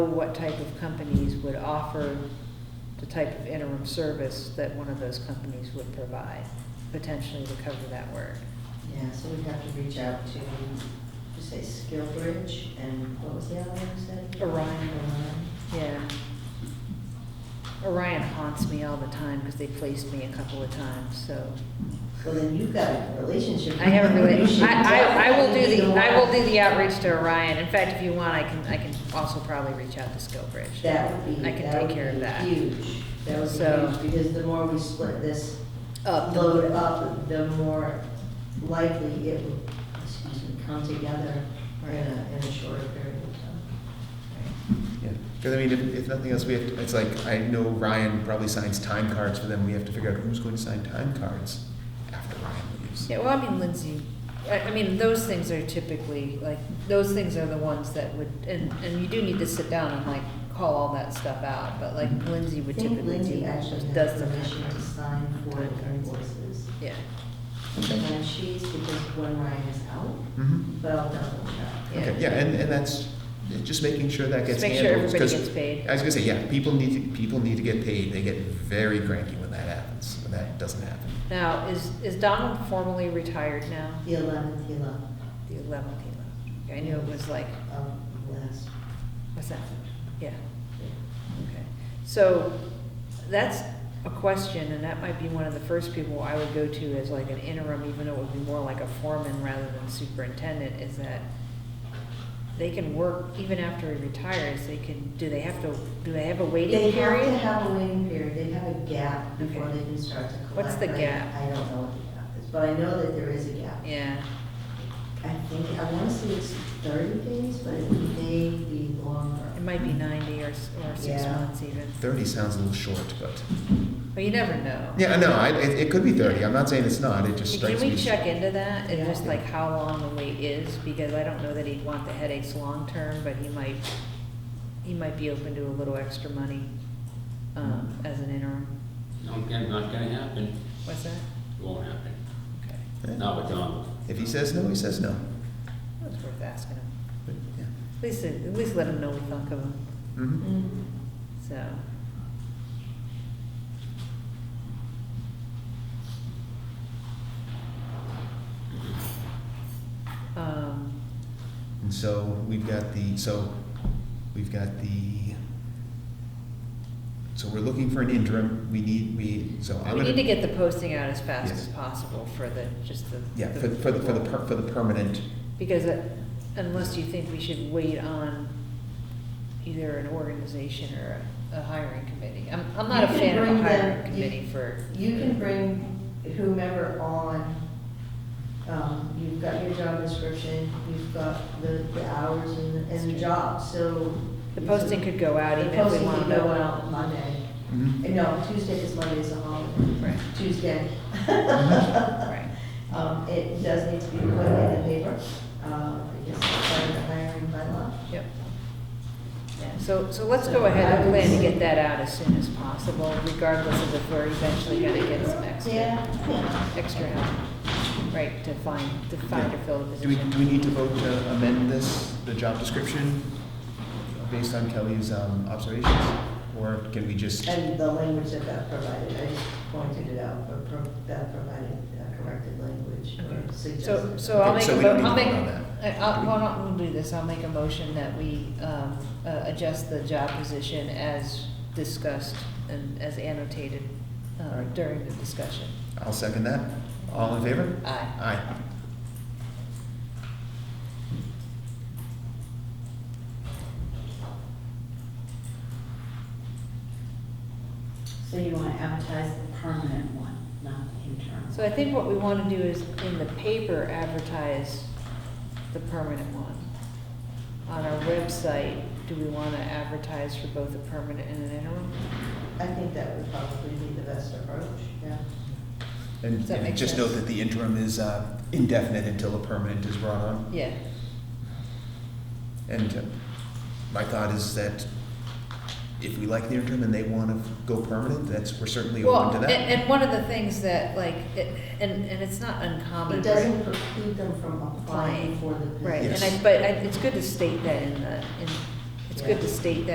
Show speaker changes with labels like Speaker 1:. Speaker 1: what type of companies would offer the type of interim service that one of those companies would provide, potentially to cover that work.
Speaker 2: Yeah, so we'd have to reach out to, you say Skillbridge and what was the other one you said?
Speaker 1: Orion.
Speaker 2: Orion.
Speaker 1: Yeah. Orion haunts me all the time because they placed me a couple of times, so
Speaker 2: Well, then you've got a relationship.
Speaker 1: I haven't really,
Speaker 2: You should
Speaker 1: I, I, I will do
Speaker 2: definitely
Speaker 1: the,
Speaker 2: go
Speaker 1: I will
Speaker 2: on.
Speaker 1: do the outreach to Orion. In fact, if you want, I can, I can also probably reach out to Skillbridge.
Speaker 2: That would be,
Speaker 1: I can
Speaker 2: that
Speaker 1: take
Speaker 2: would
Speaker 1: care of that.
Speaker 2: be huge. That
Speaker 1: So-
Speaker 2: would be huge, because the more we split this
Speaker 1: Up.
Speaker 2: load up, the more likely it will, excuse me, come together in a, in a shorter period of time.
Speaker 3: Yeah, because I mean, if, if nothing else, we have, to- it's like, I know Ryan probably signs time cards for them, we have to figure out who's going to sign time cards after Ryan leaves.
Speaker 1: Yeah, well, I mean, Lindsay, I, I mean, those things are typically, like, those things are the ones that would, and, and you do need to sit down and like, call all that stuff out, but like Lindsay
Speaker 2: I
Speaker 1: would
Speaker 2: think
Speaker 1: typically do,
Speaker 2: Lindsay actually has
Speaker 1: does the.
Speaker 2: permission to sign for the invoices.
Speaker 1: Yeah,
Speaker 3: Okay.
Speaker 2: And she's, because when Ryan is out,
Speaker 3: Mhm.
Speaker 2: but I'll double check.
Speaker 1: yeah.
Speaker 3: Okay, yeah, and, and that's, just making sure that
Speaker 1: Just
Speaker 3: gets
Speaker 1: make
Speaker 3: handled.
Speaker 1: sure everybody
Speaker 3: 'cause
Speaker 1: gets paid.
Speaker 3: I was gonna say, yeah, people need to, people need to get paid, they get very cranky when that happens, when that doesn't happen.
Speaker 1: Now, is, is Donald formally retired now?
Speaker 2: The eleventh, the eleventh
Speaker 1: The eleventh, I knew it was like,
Speaker 2: of last,
Speaker 1: what's that? Yeah. Okay, so that's a question, and that might be one of the first people I would go to as like an interim, even though it would be more like a foreman rather than superintendent, is that they can work even after he retires, they can, do they have to, do they have a
Speaker 2: They
Speaker 1: waiting
Speaker 2: have to
Speaker 1: period?
Speaker 2: have a waiting period, they have a gap before
Speaker 1: Okay.
Speaker 2: they can start to collect.
Speaker 1: What's the
Speaker 2: I-
Speaker 1: gap?
Speaker 2: I don't know what the gap is, but I know that there is a gap.
Speaker 1: Yeah,
Speaker 2: I think, I wanna say it's thirty days, but it may be longer.
Speaker 1: it might be ninety or, s- or six
Speaker 2: Yeah.
Speaker 1: months even,
Speaker 3: Thirty sounds a little short, but,
Speaker 1: but you never know.
Speaker 3: yeah, no, I, it, it could be thirty, I'm not saying it's not, it just
Speaker 1: Can
Speaker 3: strikes me.
Speaker 1: we
Speaker 3: as-
Speaker 1: check into that and
Speaker 2: Yeah.
Speaker 1: just like how long the wait is? Because I don't know that he'd want the headaches long-term, but he might, he might be open to a little extra money, um, as an interim.
Speaker 4: Not gonna, not gonna happen,
Speaker 1: What's that?
Speaker 4: It won't happen,
Speaker 1: Okay,
Speaker 3: Yeah.
Speaker 4: not with Donald.
Speaker 3: If he says no, he says no,
Speaker 1: that's worth asking him.
Speaker 3: but, yeah.
Speaker 1: At least, at least let him know we thunk of him,
Speaker 3: Mhm.
Speaker 2: Mhm.
Speaker 1: so. Um,
Speaker 3: And so we've got the, so we've got the, so we're looking for an interim, we need, we, so I'm
Speaker 1: We
Speaker 3: gonna.
Speaker 1: need to get the posting out as fast
Speaker 3: Yes.
Speaker 1: as possible for the, just the.
Speaker 3: Yeah, for, for the, for the, per- for the permanent,
Speaker 1: Because uh, unless you think we should wait on either an organization or a- a hiring committee. I'm, I'm not a
Speaker 2: You can
Speaker 1: fan of a
Speaker 2: bring
Speaker 1: hiring
Speaker 2: them-
Speaker 1: committee
Speaker 2: you-
Speaker 1: for.
Speaker 2: You can bring whomever on, um, you've got your job description, you've got the, the hours and, and the job, so.
Speaker 1: The posting could go out
Speaker 2: The
Speaker 1: even if we
Speaker 2: posting
Speaker 1: wanna
Speaker 2: could
Speaker 1: know.
Speaker 2: go out Monday,
Speaker 3: Mhm.
Speaker 2: Uh, no, Tuesday, because Monday is a holiday,
Speaker 1: Right,
Speaker 2: Tuesday.
Speaker 1: right.
Speaker 2: Um, it does need to be put in the paper, uh, because it's part of the hiring bylaw.
Speaker 1: Yep. So, so let's go ahead and plan to get that out as soon as possible, regardless of if we're eventually gonna get some extra,
Speaker 2: Yeah, yeah.
Speaker 1: extra help. Right, to find, to find or fill the
Speaker 3: do we,
Speaker 1: position.
Speaker 3: do we need to vote to amend this, the job description, based on Kelly's, um, observations? Or can we just,
Speaker 2: And the language that Beth provided, I just pointed it out, but pro- Beth provided uh, corrected language or suggested.
Speaker 1: So, so I'll
Speaker 3: Okay,
Speaker 1: make
Speaker 3: so
Speaker 1: a
Speaker 3: we
Speaker 1: mo,
Speaker 3: don't need
Speaker 1: I'll
Speaker 3: to
Speaker 1: make,
Speaker 3: vote on that.
Speaker 1: I- I'll, why don't we do this, I'll make a motion that we, um, uh, adjust the job position as discussed and as annotated, uh, during the discussion.
Speaker 3: I'll second that, all in favor?
Speaker 1: Aye.
Speaker 3: Aye.
Speaker 5: So you want to advertise the permanent one, not the interim?
Speaker 1: So I think what we wanna do is in the paper advertise the permanent one. On our website, do we wanna advertise for both a permanent and an interim?
Speaker 2: I think that would probably be the best approach, yeah.
Speaker 3: And
Speaker 1: Does that
Speaker 3: and
Speaker 1: make
Speaker 3: just
Speaker 1: sense?
Speaker 3: note that the interim is, uh, indefinite until a permanent is brought on.
Speaker 1: Yeah,
Speaker 3: And uh, my thought is that if we like the interim and they want to go permanent, that's, we're certainly
Speaker 1: well,
Speaker 3: open to
Speaker 1: and,
Speaker 3: that.
Speaker 1: and one of the things that like, it- and, and it's not uncommon.
Speaker 2: It
Speaker 1: for-
Speaker 2: doesn't preclude them from applying
Speaker 1: Applying,
Speaker 2: for the position.
Speaker 1: Right, and
Speaker 3: Yes.
Speaker 1: I, but I- it's good to state that in the, in, it's good to
Speaker 2: Yeah.
Speaker 1: state that